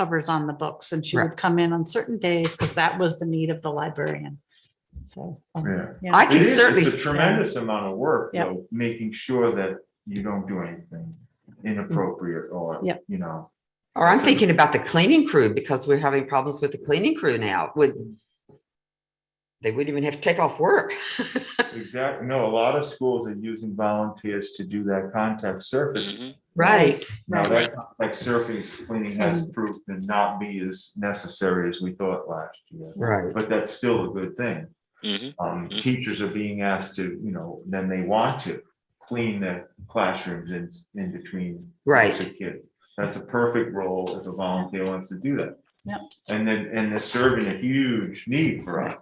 covers on the books and she Right. would come in on certain days because that was the need of the librarian. So. um, Yeah. yeah. I It can is, certainly, it's a tremendous amount of work, Yep. though, making sure that you don't do anything inappropriate or, Yep. you know. or I'm thinking about the cleaning crew because we're having problems with the cleaning crew now would. They wouldn't even have to take off work. Exactly, no, a lot of schools are using volunteers to do that contact surface. Mhm. Right. Now, Mm-hmm. Right. that contact surface cleaning has proved to not be as necessary as we thought last year. Right. But that's still a good thing. Mhm. Um, Mhm. teachers are being asked to, you know, then they want to clean the classrooms in, in between. Right. groups of Kids. That's a perfect role if a volunteer wants to do that. Yep. And then, and they're serving a huge need for us.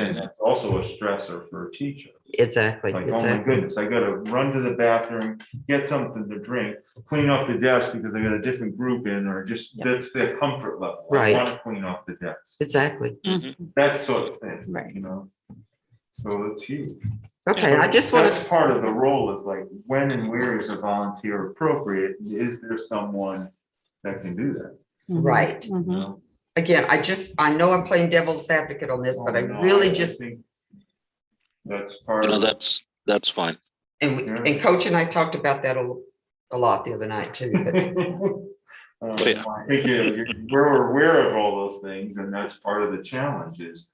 And Mhm. that's also a stressor for a teacher. Exactly. Like, oh my exactly. goodness, I gotta run to the bathroom, get something to drink, clean off the desk because I got a different group in or just, Yep. that's their comfort level. Right. I want to clean off the desk, Exactly. Mhm. that sort of thing. Right. You know? So it's huge. Okay, I just want That's to, part of the role is like, when and where is a volunteer appropriate? Is there someone that can do that? Mhm. right. you Mhm. know? Again, I just, I know I'm playing devil's advocate on this, but I Oh, no, really just, think That's part No, of, that's, that's fine. and, we- Yeah. and Coach and I talked about that a, a lot the other night too. but- Um, Yeah. I think you- you- We're aware of all those things and that's part of the challenge is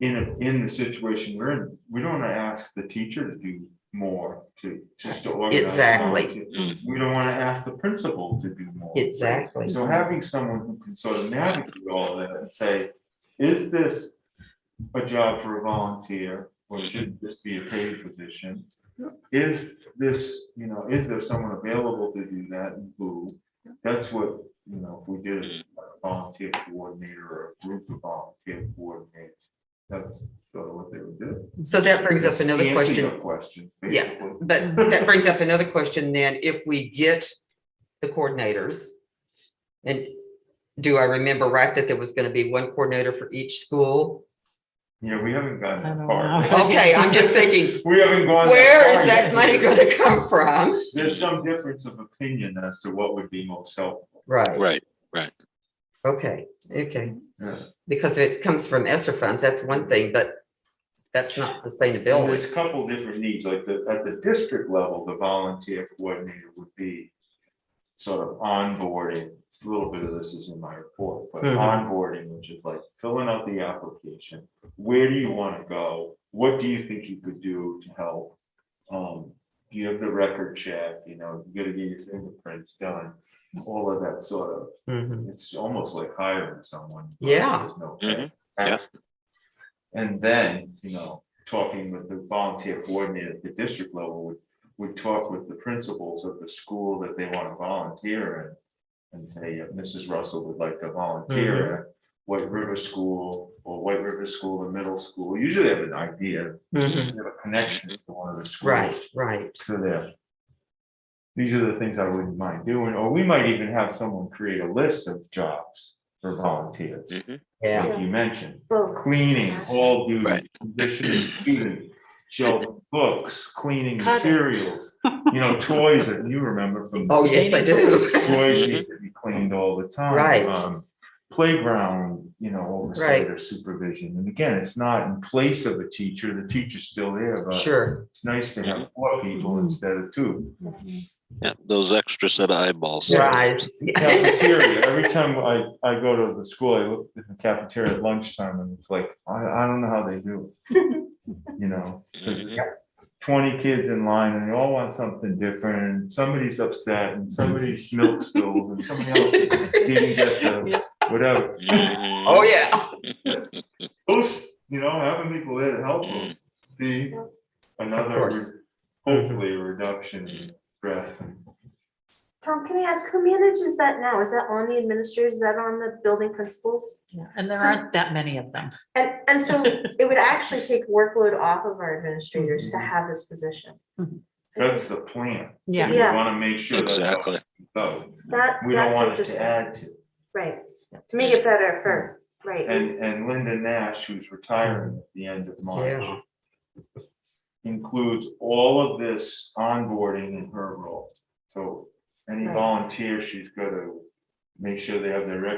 in, a- in the situation we're in, we don't want to ask the teacher to do more to, just to organize. Exactly. volunteer. We don't want to ask the principal to do more. Exactly. So having someone who can sort of navigate all that and say, is this a job for a volunteer? Or should this be a paid position? Is this, you know, is there someone available to do that and who? That's what, you know, if we did a volunteer coordinator or a group of volunteer coordinators, that's sort of what they would do. So that brings up Just another answer question. your Questions, Yeah. basically. But that brings up another question then, if we get the coordinators. And do I remember right that there was gonna be one coordinator for each school? Yeah, we haven't gotten I don't that far. know. Okay, I'm just thinking, We haven't gone. where far is that yet. money gonna come from? There's some difference of opinion as to what would be most helpful. Right, Right. okay, okay, Yeah. because if it comes from ESSER funds, that's one thing, but that's not And There's sustainability. a couple different needs, like the, at the district level, the volunteer coordinator would be sort of onboarding, It's a little bit of this is in my report, but Mhm. onboarding, which is like filling out the application. Where do you want to go? What do you think you could do to help? Um, do you have the record check, you know, you gotta get your fingerprints done, all of that sort of Mhm. It's almost like hiring someone. but Yeah. there's no Mhm. action. And then, you know, talking with the volunteer coordinator at the district level would, would talk with the principals of the school that they want to volunteer in. And say, "Yeah, Mrs. Russell would like to Mm-hmm. volunteer at White River School or White River School or middle school. Usually they have an idea, they Mhm. have a connection to one of the schools. Right, right, So there. These are the things I wouldn't mind doing, or we might even have someone create a list of jobs for volunteers, Mhm. yeah, like you mentioned. Well, Cleaning, hall duty, Right. conditioning, student, shelving books, cleaning Cutting. materials. You know, toys that you remember from. oh, yes, I do, Toys need to be cleaned all the time. Right. Um, Playground, you know, oversight or supervision. And again, it's not in place of a teacher. The teacher's still there, but sure, Mm-hmm. it's nice to have four people Mhm. instead of two. Yeah, those extra set of eyeballs. rise. Cafeteria, every time I, I go to the school, I look at the cafeteria at lunchtime and it's like, I, I don't know how they do it. You know, because Mhm. twenty kids in line and they all want something different, and somebody's upset and somebody's milk spilled and somebody else didn't get the, whatever. Mhm. Oh, yeah, Those, you know, having people there to help them, see another, course. re- hopefully a reduction in stress and Tom, can I ask, who manages that now? Is that on the administrators? Is that on the building principals? Yeah, And there So- aren't that many of them. And, and so it would actually take workload off of our administrators to have this position. Mhm. That's the plan. Yeah. We Yeah. want to make sure. that's how Exactly. it goes. That, We don't that's want it to interesting. add to. Right, to make it better for, right, And, and Linda Nash, who's retiring at the end of yeah, March, includes all of this onboarding in her role. So any Right. volunteer she's got to make sure they have their records